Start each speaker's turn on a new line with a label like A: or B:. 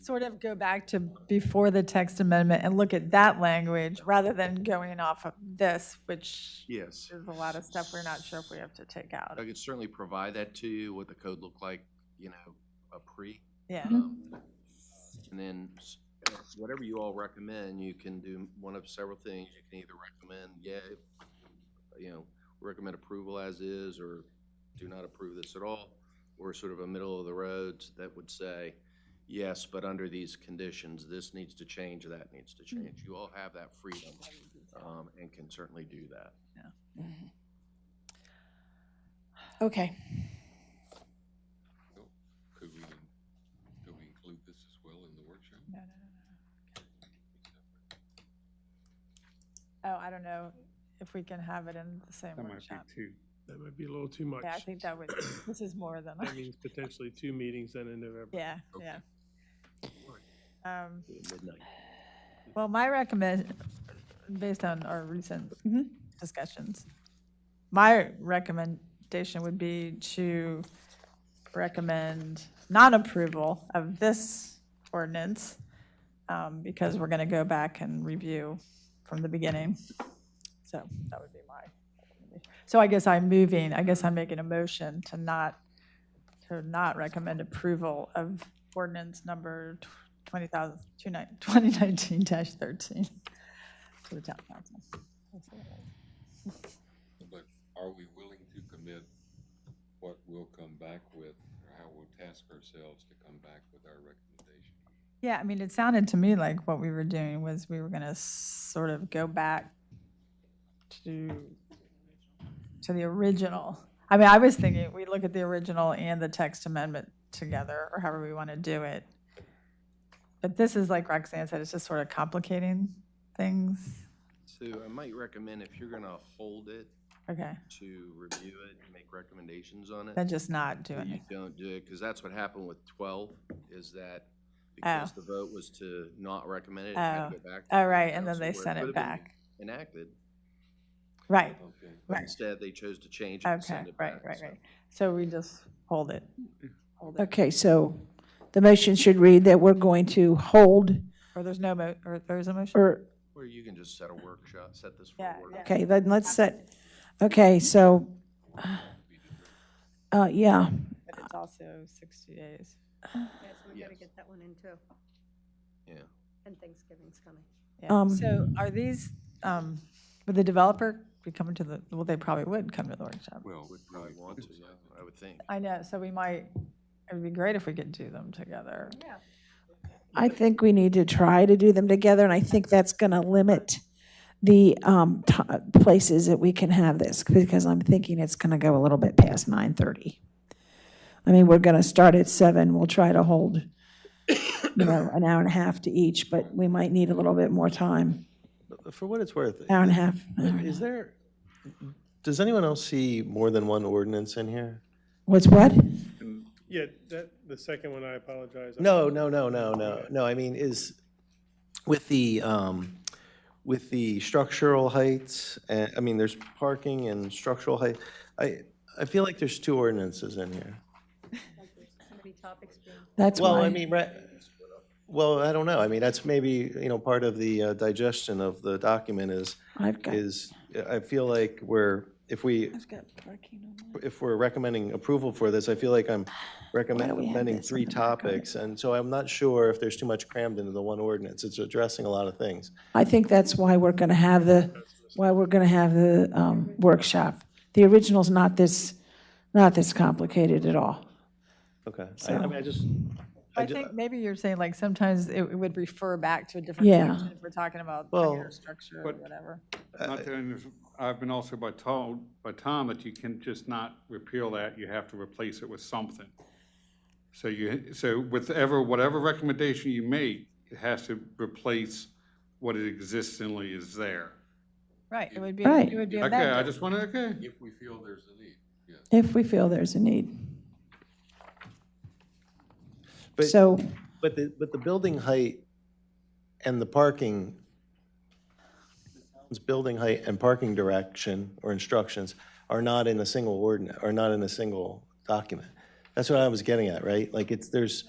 A: sort of go back to before the text amendment and look at that language rather than going off of this, which
B: Yes.
A: is a lot of stuff we're not sure if we have to take out.
B: I could certainly provide that to you, what the code looked like, you know, a pre.
A: Yeah.
B: Um, And then s- whatever you all recommend, you can do one of several things. You can either recommend, yeah, you know, recommend approval as is, or do not approve this at all, or sort of a middle of the roads that would say, yes, but under these conditions, this needs to change, that needs to
A: Hmm.
B: change. You all have that freedom, um, and can certainly do that.
A: Mm-hmm.
C: Okay.
D: Could we, could we include this as well in the workshop?
A: Oh, I don't know if we can have it in the same
E: That might be
A: workshop.
E: two.
F: That might be a little too much.
A: Yeah, I think that would, this is more than,
F: That means potentially two meetings then in November.
A: yeah, yeah. Um,
B: Midnight.
A: Well, my recommend, based on our recent
C: Mhm.
A: discussions, my recommendation would be to recommend non-approval of this ordinance, um, because we're going to go back and review from the beginning. So that would be my, so I guess I'm moving, I guess I'm making a motion to not, to not recommend approval of ordinance number 20,000 2019-13 to the town council.
D: But are we willing to commit what we'll come back with, or how we'll task ourselves to come back with our recommendation?
A: Yeah, I mean, it sounded to me like what we were doing was we were going to sort of go back to, to the original. I mean, I was thinking, we look at the original and the text amendment together, or however we want to do it. But this is like Roxanne said, it's just sort of complicating things.
B: So I might recommend if you're gonna hold it,
A: Okay,
B: to review it and make recommendations on
A: then
B: it.
A: just not do
B: But you
A: it.
B: don't do it, because that's what happened with twelve, is that because the vote was to not recommend it, it had to go back. to
A: Oh,
B: the
A: right, and then
B: council
A: they
B: where
A: sent it
B: could've been
A: back.
B: Enacted,
A: Right,
D: Okay.
B: but
A: Right.
B: instead they chose to change it and
A: okay,
B: send it
A: right,
B: back.
A: right,
B: so-
A: right. So we just hold it. Hold it.
C: Okay, so the motion should read that we're going to hold,
A: Or there's no mo, or there's a motion?
C: or,
B: Or you can just set a workshop, set this for
A: Yeah,
B: a
A: yeah.
B: workshop.
C: okay, then let's set, okay, so, uh, yeah,
A: But it's also 60 days.
G: Yes, we gotta
B: Yes.
G: get that one in too,
B: Yeah.
G: and Thanksgiving's coming.
A: Yeah.
C: Um,
A: So are these, um, would the developer be coming to the, well, they probably would come to the workshop.
D: Well,
B: Would probably want to, yeah, I would think.
A: I know, so we might, it would be great if we could do them together.
G: Yeah.
C: I think we need to try to do them together, and I think that's going to limit the um, ti places that we can have this, because I'm thinking it's going to go a little bit past 9:30. I mean, we're going to start at 7, we'll try to hold, you know, an hour and a half to each, but we might need a little bit more time,
H: For what it's worth,
C: hour and a half.
H: is there, does anyone else see more than one ordinance in here?
C: What's what?
F: Yeah, that, the second one, I apologize.
H: No, no, no, no, no, no, I mean, is, with the, um, with the structural heights, uh, I mean, there's parking and structural height, I, I feel like there's two ordinances in here.
G: Somebody topics being.
C: That's
H: Well, I
C: why,
H: mean, right, well, I don't know, I mean, that's maybe, you know, part of the uh, digestion of the document is,
C: I've got,
H: is, I feel like we're, if we
C: I've got parking on my.
H: if we're recommending approval for this, I feel like I'm
C: we have
H: recommending
C: this
H: three
C: in the back of it?
H: topics, and so I'm not sure if there's too much crammed into the one ordinance. It's addressing a lot of things.
C: I think that's why we're going to have the, why we're going to have the um, workshop. The original's not this, not this complicated at all.
H: Okay. I I mean, I just, I
A: I
H: ju-
A: think maybe you're saying like sometimes it would refer back to a different
C: Yeah.
A: section if we're talking about
H: Well,
A: regular structure or
E: but-
A: whatever.
E: Not that, I'm- I've been also by told, by Tom, that you can just not repeal that, you have to replace it with something. So you, so with ever, whatever recommendation you make, it has to replace what it existingly is there.
A: Right, it would be,
C: Right.
A: it would be
E: Okay,
A: amended.
E: I just wanted, okay.
D: If we feel there's a need, yes.
C: If we feel there's a need.
H: But-
C: So,
H: but the, but the building height and the parking, the town's building height and parking direction or instructions are not in a single ordinance, are not in a single document. That's what I was getting at, right? Like, it's, there's,